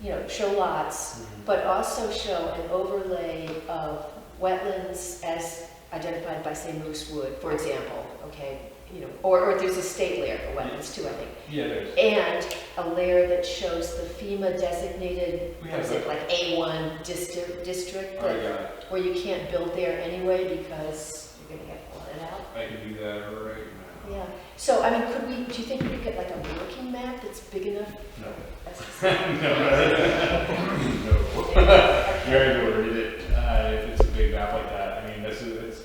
you know, show lots, but also show an overlay of wetlands as identified by, say, Moose Wood, for example, okay? You know, or, or there's a state layer for wetlands too, I think. Yeah, there's, And a layer that shows the FEMA designated, We what is have it, like A1 district, district, I that- got it, where you can't build there anyway because you're gonna get flooded out. I can do that right now. Yeah, so I mean, could we, do you think we could get like a working map that's big enough No. as to see? No. No. Very worried it, uh, if it's a big map like that, I mean, this is, it's,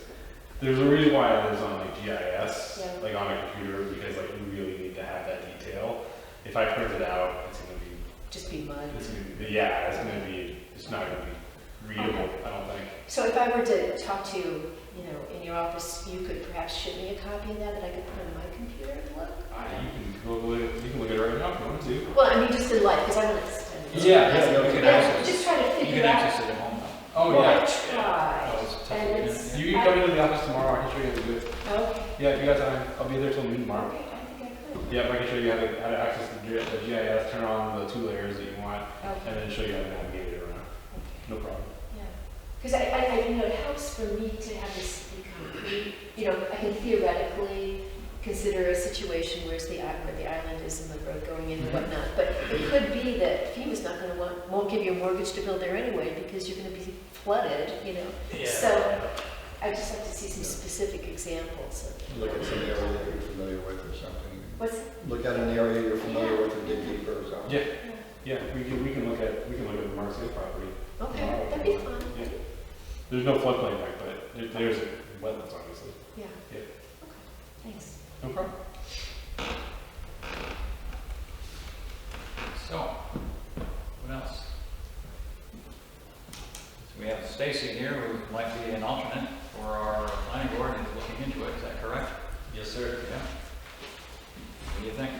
there's a reason why it lives on like GIS, Yeah. like on a computer, because like you really need to have that detail. If I print it out, it's gonna be, Just be mud. it's gonna be, yeah, it's gonna be, it's not gonna be readable, I don't think. So if I were to talk to you, you know, in your office, you could perhaps ship me a copy of that that I could put on my computer and look? Uh, you can Google it, you can look at it right now if you want to. Well, I mean, just in life, because I want to spend. Yeah, yeah, no, we can Yeah, access- just trying to You figure can out. access it at home now. Oh, Well, I yeah. tried. Oh, it's tough to And do, it's- yeah. You can come into the office tomorrow, I can show you how to do it. Okay, Yeah, you got time, I'll be there till noon tomorrow. okay, I think I could. Yeah, I can show you how to, how to access the G- the GIS, turn on the two layers that you want, Okay, and then show you how to navigate it around. No problem. yeah. Because I, I, I- you know, it helps for me to have this be concrete. You know, I can theoretically consider a situation where's the, i- where the island is and the road going in and Mhm. whatnot. But it could be that FEMA's not going to want, won't give you a mortgage to build there anyway because you're going to be flooded, you know? So- I just have to see some specific examples of, Look at some area that you're familiar with or something. what's, Look at an area you're familiar with and dig deeper or something. Yeah, yeah, we can, we can look at, we can look at the Marcy property. okay, that'd be fun. Yeah. There's no floodplain back, but there- there's wetlands, obviously. Yeah. Yeah. Okay, thanks. No problem. So, what else? So we have Stacy here, who might be an alternate for our planning board and is looking into it, is that correct? Yes, sir. Yeah. What do you think?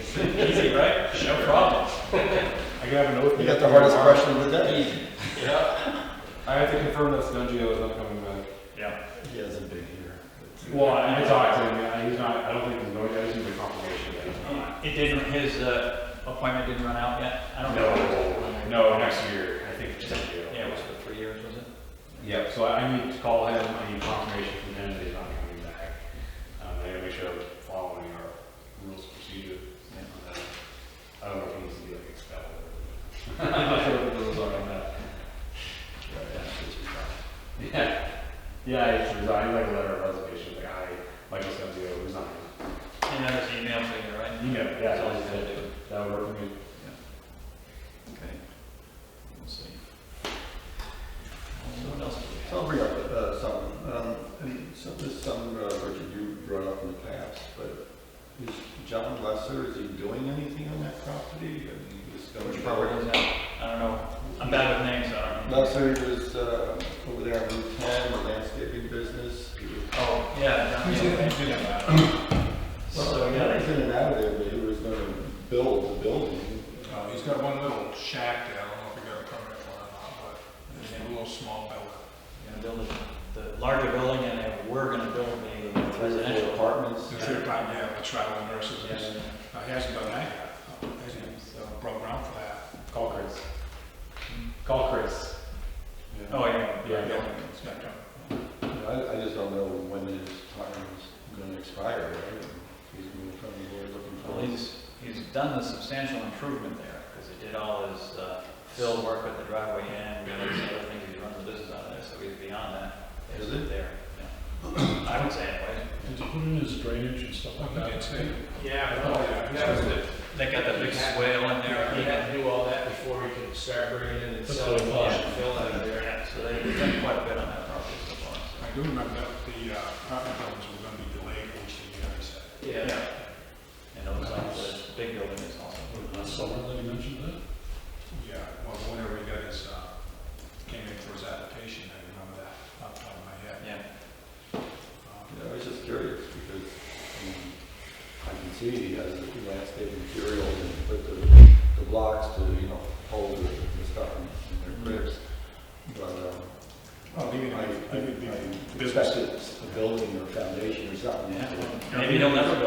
It's easy, right? No problem. I can have an oath. You got the hardest tomorrow. question of the day. I have to confirm that Stundio is uh, not coming back. Yeah. He hasn't been here. Well, I I talked to him, yeah, he's not, I don't think there's no, I just need a confirmation. that he's not. It didn't, his uh, appointment didn't run out yet? I don't No, know. no, next year, I think Stundio. Yeah, it was for three years, was it? Yep, so I I need to call him, I need confirmation from him that he's not coming back. Um, I gotta make sure I'm following our rules of procedure. Yeah. on that. I don't know if he needs to be like expelled or. I'm not sure what the rules are on that. Yeah, yeah, I just resigned, like a letter of resignation, like I, Michael Scanzio resigned. And that was the email thing, right? You know, yeah, That's all so he's gonna do. that would work for me. Okay, we'll see. So what else do we So have? I'll bring up uh, some, um, and so this is some, uh, Richard, you brought up in the past, but is John Lesser, is he doing anything on that property? I mean, he was going- Which property is that? I don't know, I'm bad with names, I don't know. Lesser was uh, over there on Route 10, a landscaping business. He was- Oh, yeah, down Who's the it? other way. So, Well, he yeah, was in and out of there, but he was going to build the building. Uh, he's got one little shack there, I don't know if he got a permit for it or not, but it's a little small building. gonna build the, the larger building and then we're gonna build the Three or four residential. apartments. It's your time, yeah, the travel nurses, Yes. and- uh, he hasn't done that yet, Uh, hasn't uh, broke ground for that. Call Chris. Call Chris. Oh, yeah, Yeah. yeah, Building yeah. inspector. I, I just don't know when his time is gonna expire, right? He's been from the board looking for. Well, he's, he's done the substantial improvement there, because he did all his, uh, fill work at the driveway end, and all these other things, he runs the business out of there, so he's beyond that. Is It's it? There, yeah. I would say anyway. Did you put in his drainage and stuff like He did that? say, Yeah, Oh, no, yeah, that was the, They got the big swale in there. he had to do all that before he could start bringing in and That's uh, selling what I fish thought. and fill out of there. Yeah, so they- they've done quite a bit on that property so far. I do remember that the uh, apartment buildings were gonna be delayed, which he uh, said. so- Yeah, And it looks like the big building is also. Last summer, they mentioned that? Yeah, well, whenever he got his, uh, came in for his application, I remember that off the top of my head. Yeah, Um, Yeah, I was just curious, because, I mean, I can see he has the landscape material and put the, the blocks to, you know, hold the, the stuff in their grips. But, um, Oh, Well, even, I, I, even the I business. expected a building or foundation or something. yeah. Maybe he'll never